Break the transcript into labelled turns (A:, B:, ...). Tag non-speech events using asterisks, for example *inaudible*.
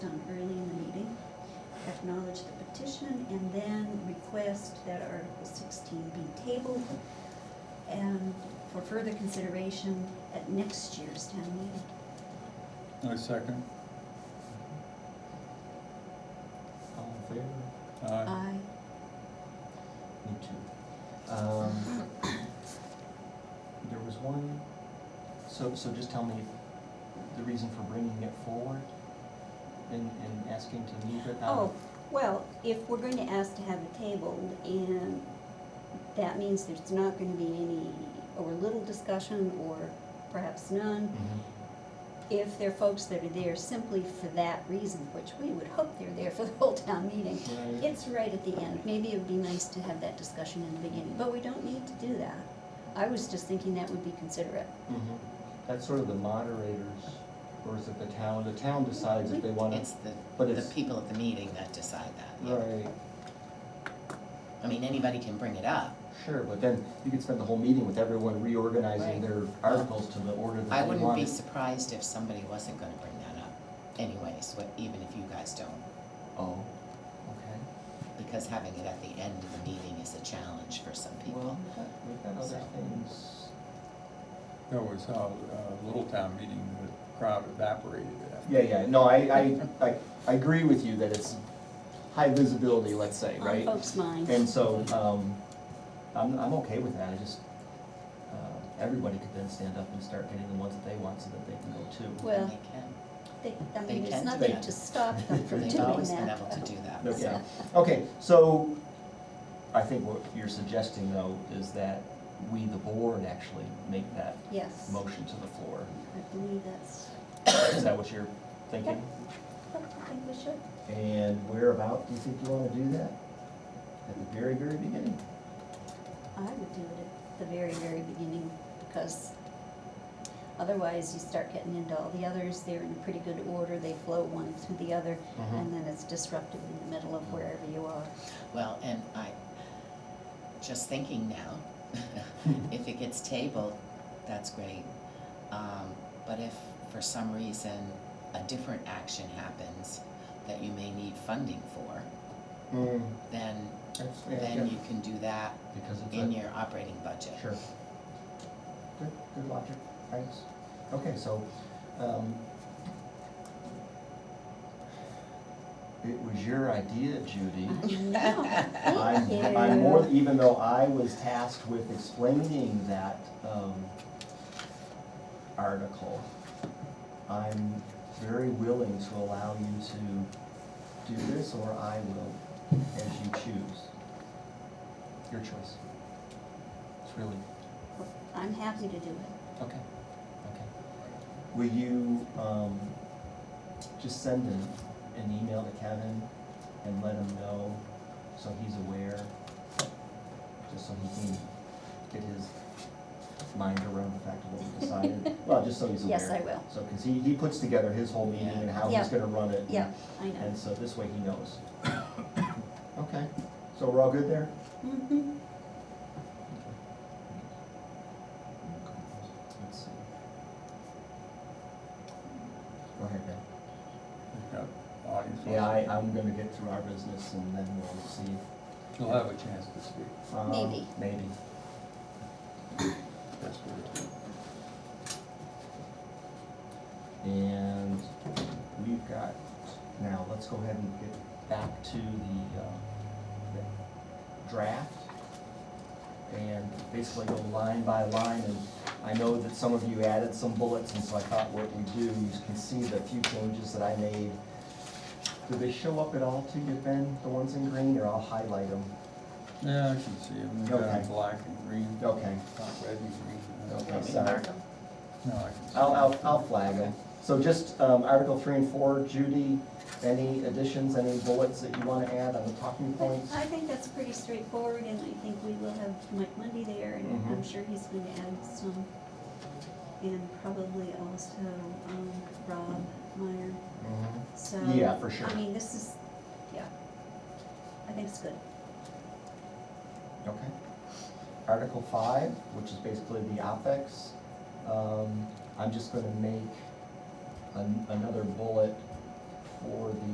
A: request that Article sixteen be tabled and for further consideration at next year's town meeting.
B: I second.
C: All in favor?
B: Aye.
A: I,
C: Me too. Um, *coughs* there was one, so, so just tell me the reason for bringing it forward and, and asking to move it out.
A: oh, well, if we're going to ask to have it tabled and that means there's not gonna be any, or little discussion or perhaps none,
C: Mhm.
A: if there are folks that are there simply for that reason, which we would hope they're there for the whole town meeting,
C: Right.
A: it's right at the end. Maybe it would be nice to have that discussion in the beginning, but we don't need to do that. I was just thinking that would be considerate.
C: Mhm. That's sort of the moderators, or is it the town? The town decides if they wanna.
D: It's the,
C: but
D: the
C: it's-
D: people at the meeting that decide that. yeah.
C: Right,
D: I mean, anybody can bring it up.
C: sure, but then you could spend the whole meeting with everyone reorganizing
D: Right.
C: their articles to the order that they
D: I
C: want.
D: wouldn't be
C: it.
D: surprised if somebody wasn't gonna bring that up anyways, what, even if you guys don't.
C: Oh, okay.
D: Because having it at the end of the meeting is a challenge for some
C: Well,
D: people.
C: we've got, we've got other
D: So.
C: things.
B: That was how, uh, Little Town meeting, the crowd evaporated uh, after.
C: Yeah, yeah, no, I, I, I, I agree with you that it's high visibility, let's say,
A: On
C: right?
A: folks' minds.
C: And so, um, I'm, I'm okay with that, I just, uh, everybody could then stand up and start getting the ones that they want so that they can go too.
A: Well-
D: And they can.
A: They, I
D: They
A: mean, there's
D: can do
A: nothing
D: that.
A: to stop them from doing
D: They've always been able to
A: that.
D: do that.
C: But
D: so-
C: Yeah, okay, so, I think what you're suggesting though is that we, the board, actually make that
A: Yes,
C: motion to the floor.
A: I believe that's,
C: Is that what you're thinking?
A: I think we should.
C: And whereabout do you think you wanna do that? At the very, very beginning?
A: I would do it at the very, very beginning, because otherwise you start getting into all the others, they're in pretty good order, they flow one through the other,
C: Mm-hmm.
A: and then it's disruptive in the middle of wherever you
C: *laughs*
A: are.
D: Well, and I, just thinking now,
C: *laughs*
D: if it gets tabled, that's great. Um, but if for some reason a different action happens that you may need funding for,
C: Mm,
D: then,
C: that's- yeah, yeah.
D: then you can do that
C: Because it's
D: in
C: a,
D: your operating budget.
C: sure. Good, good logic, thanks. Okay, so, um, it was your idea, Judy.
A: *laughs* Thank you.
C: I'm, I'm more, even though I was tasked with explaining that, um, article, I'm very willing to allow you to do this, or I will, as you choose. Your choice. It's really,
A: I'm happy to do it.
C: okay, okay. Will you, um, just send an, an email to Kevin and let him know, so he's aware, just so he can get his mind around the fact of what
A: *laughs*
C: we decided? Well, just so he's aware.
A: Yes, I will.
C: So, because he, he puts together his whole meeting and how he's
A: Yeah.
C: gonna run it.
A: Yeah, I know.
C: And so this way he
A: *coughs*
C: knows. Okay, so we're all good there?
A: Mhm.
C: Let's see. Go ahead, Ben.
B: We've got audience.
C: Yeah, I, I'm gonna get through our business and then we'll see.
B: You'll have a chance to speak.
C: Um,
A: Maybe.
C: Maybe.
B: That's good.
C: And we've got, now, let's go ahead and get back to the, uh, the draft. And basically go line by line, and I know that some of you added some bullets, and so I thought what we do, you can see the few changes that I made. Do they show up at all to you, Ben, the ones in green, or I'll highlight them?
B: Yeah, I can see them, they're
C: Okay.
B: black and green, not
C: Okay,
B: red and green.
C: Okay.
D: Let me
C: sorry.
D: mark 'em.
B: No, I can see.
C: I'll, I'll, I'll flag them. So just, um, Article three and four, Judy, any additions, any bullets that you wanna add on the talking
A: But
C: points?
A: I think that's pretty straightforward, and I think we will have Mike Monday there, and
C: Mm-hmm.
A: I'm sure he's going to add some. And probably also um, Rob Meyer,
C: Mhm.
A: so.
C: Yeah, for sure.
A: I mean, this is, yeah, I think it's good.
C: Okay. Article five, which is basically the OpEx, um, I'm just gonna make an, another bullet for the